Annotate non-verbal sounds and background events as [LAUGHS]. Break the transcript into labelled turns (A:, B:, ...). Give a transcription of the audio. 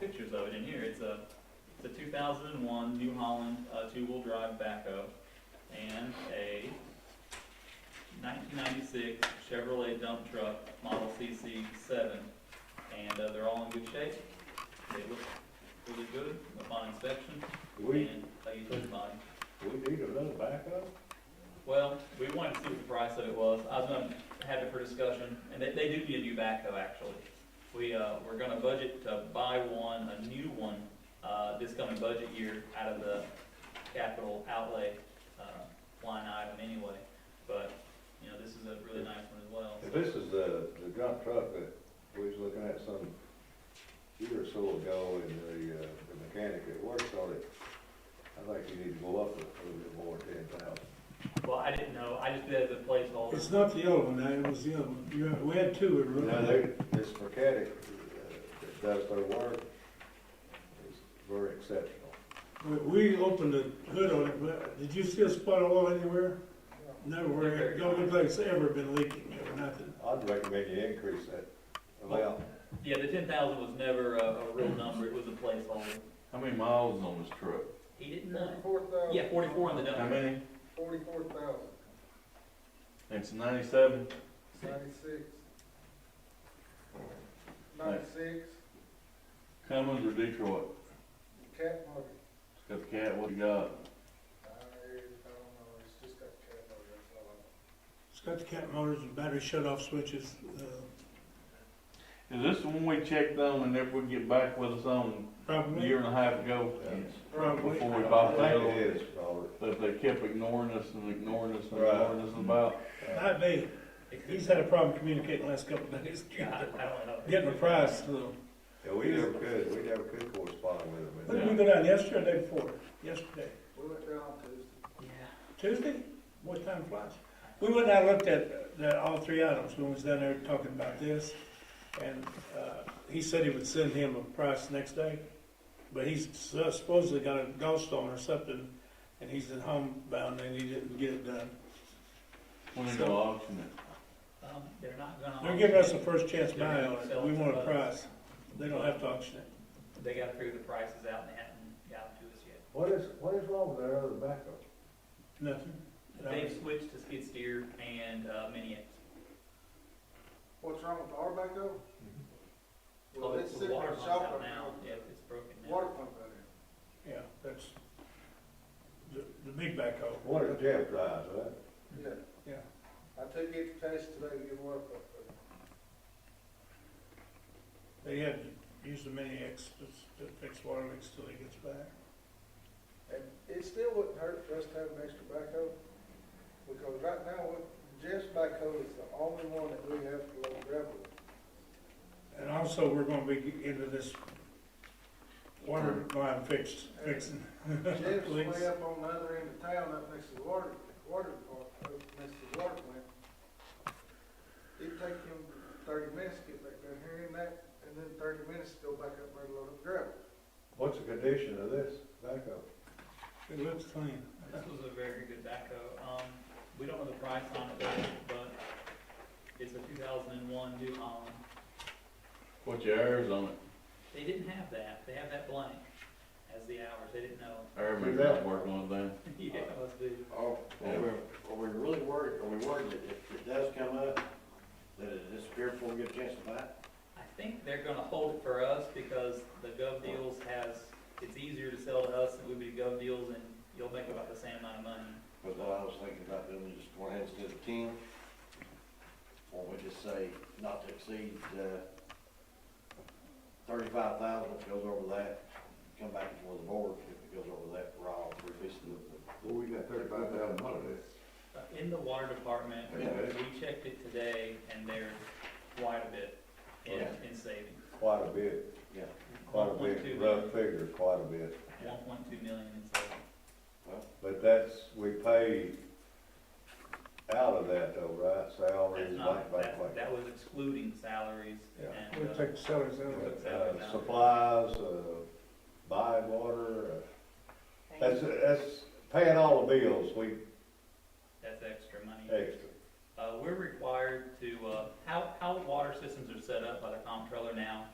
A: pictures of it in here. It's a, it's a two thousand and one New Holland, uh, two-wheel drive backhoe and a nineteen ninety-six Chevrolet dump truck, model CC seven. And, uh, they're all in good shape. They look really good upon inspection
B: We,
A: and uh, they use the body.
B: we need another backup?
A: Well, we wanted to see what the price of it was. I was gonna have it for discussion, and they, they do need a new backhoe, actually. We, uh, we're gonna budget to buy one, a new one, uh, this coming budget year out of the capital outlay, uh, line item anyway. But, you know, this is a really nice one as well.
B: If this is the, the dump truck that we was looking at some year or so ago, and the, uh, the mechanic that works on it, I think you need to go up a little bit more, ten thousand.
A: Well, I didn't know, I just did it as a
C: It's
A: placeholder.
C: not the yellow one, it was the other one. You had, we had two in
B: Now,
C: Rutland.
B: they, this mechanic uh, that does their work is very exceptional.
C: We we opened the hood on it, but did you see a spot of oil anywhere? Nowhere, it don't look like it's ever been leaking or nothing.
B: I'd recommend you increase that amount.
A: Yeah, the ten thousand was never a, a real number, it was a placeholder.
D: How many miles is on this truck?
A: He didn't know.
E: Forty-four thousand.
A: Yeah, forty-four on the
D: How
A: dump.
D: many?
E: Forty-four thousand,
D: It's ninety-seven?
E: ninety-six. Ninety-six,
D: Cummins or Detroit?
E: cat money.
D: It's got the cat, what you got?
E: I, I don't know, it's just got cat money, that's all I know.
C: It's got the cap motors and battery shut-off switches. uh,
D: Is this the one we checked on and if we get back with us on a
C: Probably,
D: year and a half ago?
B: Yes.
C: probably.
D: Before we
B: I
D: bought the
B: think
D: other
B: it
D: one?
B: is, Robert.
D: That they kept ignoring us and ignoring us and
B: Right.
D: ignoring us about?
C: Might be.
A: It could-
C: He's had a problem communicating the last couple of days. [LAUGHS]
A: I I don't know.
C: Getting a price, so.
B: Yeah, we never could, we never could correspond with
C: When
B: them.
C: did we go down, yesterday or the day before? Yesterday.
E: We went down Tuesday.
A: Yeah.
C: Tuesday? What time flies? We went out and looked at, that all three items, when we was down there talking about this, and, uh, he said he would send him a price next day, but he's su- supposedly got a gallstone or something, and he's at home bound and he didn't get it done.
D: When they
C: So-
D: go auction it?
A: Um, they're not gonna.
C: They're giving us a
A: auction
C: first chance buy on it, we want a price, they don't have to auction it.
A: it. They gotta figure the prices out and they haven't gotten to us yet.
B: What is, what is wrong with their other backup?
C: Nothing,
A: They've switched to skid steer and, uh, mini X.
E: What's wrong with our backhoe?
A: Oh,
E: Well, it's
A: the
E: sitting in
A: water
E: the
A: pump's
E: shop
A: out
E: right
A: now.
E: now.
A: Yeah, it's broken now.
E: Water pump out here.
C: yeah, that's the, the big backhoe.
B: What is Jeff drives, huh?
A: Mm-hmm.
E: Yeah.
C: Yeah.
E: I took it to Cash today to get water pump out there.
C: They had to use the mini X to to fix water leaks till he gets back.
E: And it still wouldn't hurt for us to have an extra backhoe, because right now, what- Jeff's backhoe is the only one that we have to load gravel. with.
C: And also, we're gonna be into this water line fixed, fixing. [LAUGHS]
E: Jeff's
C: leaks.
E: way up on the other end of town, up next to the water, water department, up next to the water plant. It'd take him thirty minutes to get back down here and that, and then thirty minutes to go back up there and load up gravel.
B: What's the condition of this backup?
C: It looks clean.
A: This was a very good backhoe. Um, we don't know the price on it, yet, but it's a two thousand and one New Holland.
D: What's your hours on it?
A: They didn't have that. They have that blank as the hours. They didn't know. [LAUGHS]
D: Hour maybe not working on them.
A: Yeah, it must be.
F: Are, are we, are we really worried, are we worried that if it does come up, that it'll disappear before we get a chance to buy it?
A: I think they're gonna hold it for us because the Gov Deals has, it's easier to sell to us than it would be to Gov Deals and you'll make about the same amount of money.
F: But what I was thinking about doing is just going ahead instead of ten, or we just say not to exceed, uh, thirty-five thousand, if it goes over that, come back before the board, if it goes over that, we're all revisiting the,
B: Well, we got thirty-five thousand out of this.
A: Uh, In the water department,
B: Yeah.
A: we checked it today, and there's quite a bit in,
F: Yeah.
A: in savings.
B: Quite a bit,
F: yeah.
B: quite a bit, rough figure, quite a bit.
A: One point two million in savings.
B: But that's, we pay out of that though, right?
A: That's
B: Salaries, like,
A: not,
B: like,
A: that,
B: like.
A: that was excluding salaries
B: Yeah.
C: We
A: and, uh,
C: take the cellars out. of it.
B: Uh, Supplies, uh, buying water, uh, that's, that's paying all the bills, we
A: that's extra money.
B: extra.
A: Uh, we're required to, uh, how, how water systems are set up by the comptroller now